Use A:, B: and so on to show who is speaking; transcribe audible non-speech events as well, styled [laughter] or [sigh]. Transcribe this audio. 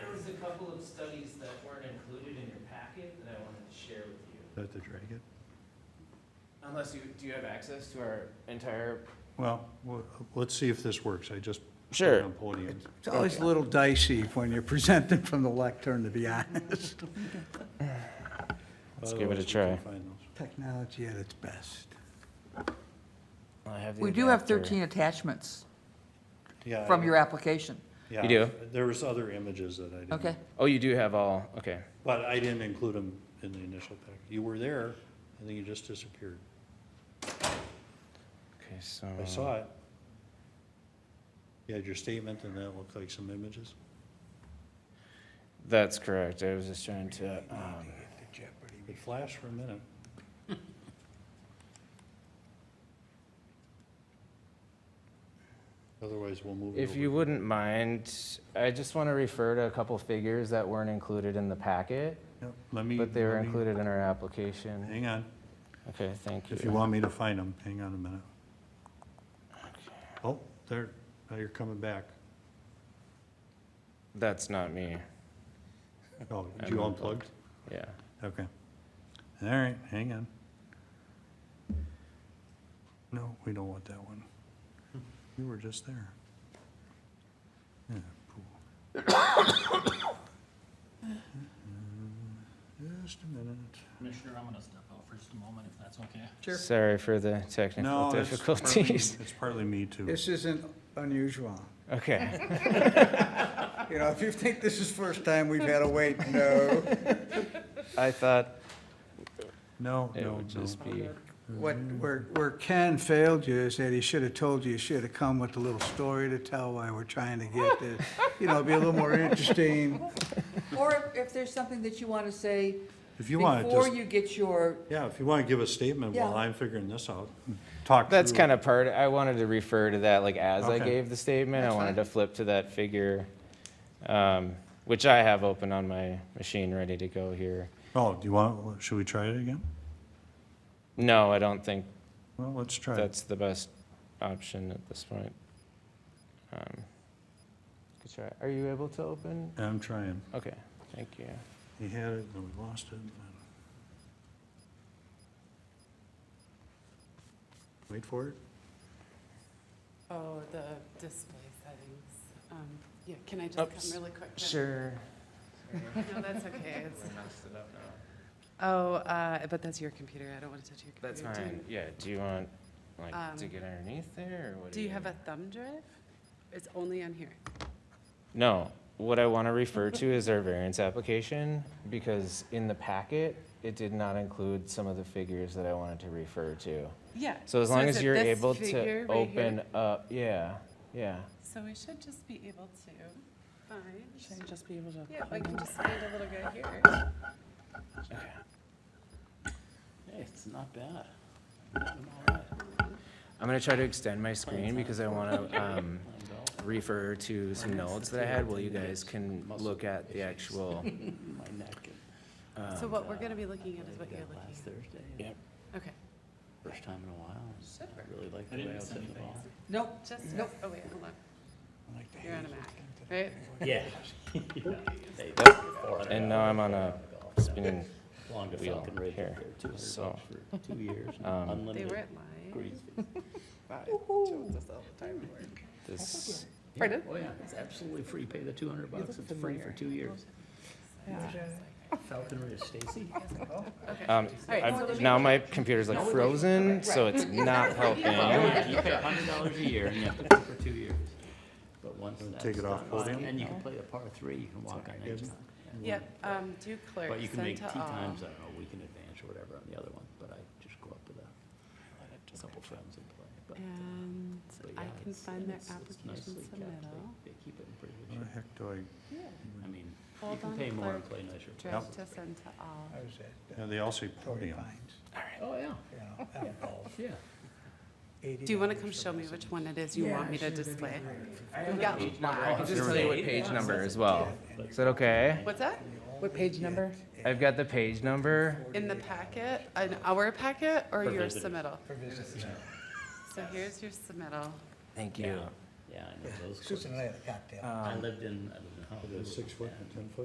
A: couple of studies that weren't included in your packet that I wanted to share with you.
B: That the dragon?
A: Unless you, do you have access to our entire?
B: Well, w- let's see if this works. I just. put it
A: Sure.
B: On podium.
C: It's always a little dicey when you're presenting from the lectern, to be honest.
A: Let's give it a
B: Otherwise, we can
A: try.
B: find those.
C: Technology at its best.
A: I have the
D: We do have
A: adapter.
D: 13 attachments
B: Yeah,
D: from
B: I-
D: your application.
B: yeah,
A: You do?
B: There was other images that I didn't.
D: Okay.
A: Oh, you do have all, okay.
B: But I didn't include them in the initial pack. You were there, and then you just disappeared.
A: Okay, so.
B: I saw it. You had your statement, and that looked like some images.
A: That's correct. I was just trying to, um,
B: It flashed for a minute. [laughs] Otherwise, we'll move it over.
A: if you wouldn't mind, I just want to refer to a couple figures that weren't included in the packet,
B: Yep, Let me.
A: but they were
B: let me-
A: included in our application.
B: Hang on.
A: Okay, thank you.
B: If you want me to find them, hang on a minute. Oh, there, now you're coming back.
A: That's not me.
B: Oh,
A: I'm
B: you
A: unplugged.
B: unplugged?
A: Yeah.
B: Okay. All right, hang on. No, we don't want that one. You were just there. Yeah, cool. Just a minute.
E: Commissioner, I'm gonna step out for just a moment, if that's okay.
A: Sorry for the technical
B: No, it's partly-
A: difficulties. [laughs]
B: It's partly me too.
C: This isn't unusual.
A: Okay.
C: You know, if you think this is first time we've had to wait, no.
A: I thought
B: No,
A: it
B: no,
A: would
B: no.
A: just be,
C: What, where, where Ken failed you is that he should have told you, you should have come with a little story to tell why we're trying to get this. You know, be a little more interesting.
D: Or if- if there's something that you want to say
B: If you want,
D: before
B: just,
D: you get your,
B: yeah, if you want to give a statement while
D: Yeah.
B: I'm figuring this out, talk through.
A: that's kind of part, I wanted to refer to that, like, as I
B: Okay.
A: gave the statement. I
D: That's
A: wanted to
D: fine.
A: flip to that figure, um, which I have open on my machine, ready to go here.
B: Oh, do you want, should we try it again?
A: No, I don't think
B: Well, let's try it.
A: that's the best option at this point. Um, Good try. Are you able to open?
B: I'm trying.
A: Okay, thank you.
B: He had it, and we lost it. and- Wait for it.
F: Oh, the display settings. Um, Yeah, can I just
A: Oops.
F: come really quick? then?
A: Sure.
F: [laughs] No, that's okay. [laughs] It's-
A: messed it up now.
F: Oh, uh, but that's your computer. I don't want to touch your
A: That's
F: computer. Do you-
A: fine, yeah, do you want, like, to
F: Um,
A: get underneath there, or what?
F: Do you have a thumb drive? It's only on here.
A: No, what I want to refer to is our variance application, because in the packet, it did not include some of the figures that I wanted to refer to.
F: Yeah.
A: So as long
F: is
A: as
F: it
A: you're
F: this
A: able
F: figure
A: to
F: right here?
A: open up, yeah, yeah.
F: So we should just be able to find. Should I just be able to? Yeah, I can just find a little guy here.
E: Hey, it's not bad. I'm all right.
A: I'm gonna try to extend my screen because I wanna, um,
E: Lined up.
A: refer to some notes that I had while you guys can look at the actual. um,
E: My neck and-
F: [laughs] So what we're going to be looking at is what
E: Did
F: you're
E: that
F: looking
E: Last
F: at.
E: Thursday.
A: Yep.
F: Okay.
E: First time in a while. and
F: Should work.
E: I Really like the way I was hitting the ball. [laughs]
D: nope,
F: Just,
D: Nope.
F: oh wait, hold on. You're on a Mac, right?
E: Yeah. Hey,
A: And now I'm on a spinning,
E: Longest
A: wheel
E: Falcon Ridge up
A: here,
E: there, two hundred bucks
A: so.
E: for two [laughs] years,
A: Um,
F: They were
E: unlimited
F: at live.
E: greens.
F: Wow, Jones us all the time at work.
A: this,
F: Pardon?
E: Oh, yeah, it's absolutely free, pay the two hundred bucks, it's free for two years. Falcon Ridge, Stacy?
A: um,
F: right, so
A: I've,
F: let
A: now my computer's like frozen, so it's
F: [laughs]
A: not helping.
E: You pay hundred dollars a [laughs] year and you have to play for two years. But once that's
B: Take it off
E: done,
B: podium?
E: And you can play the par three, you can walk on any time.
F: Yep, um, do clerk,
E: But you can
F: send
E: make
F: to
E: tee
F: all.
E: times, I don't know, weekend advance or whatever on the other one, but I just go up with a, a couple friends and play. But, uh,
F: And
E: but
F: I
E: yeah,
F: can
E: it's-
F: find that
E: it's- it's
F: application
E: nicely kept. They-
F: submittal.
E: They keep it in pretty
B: Where
E: good
B: the
E: shape.
B: heck do I,
E: I mean, you
F: Hold
E: can
F: on,
E: pay more and play
F: clerk.
E: nicer.
F: Draft to send to all.
C: I was at uh,
B: yeah, they all say
C: Torrey
B: podium.
C: Pines,
E: Oh, yeah,
C: you know, out of golf.
E: yeah.
F: Do you want to come show me which one it is you want me to display? Yeah.
A: I can just tell you what page number as well. Is that okay?
F: What's that?
C: What page number?
A: I've got the page number.
F: In the packet, an hour packet or
E: For
F: your
E: visitors.
F: submittal? So here's your submittal.
A: Thank you.
E: Yeah, I know those. courts.
C: Susan and I had a cocktail.
E: I lived in, I lived in Hollywood.
B: Six foot and ten foot?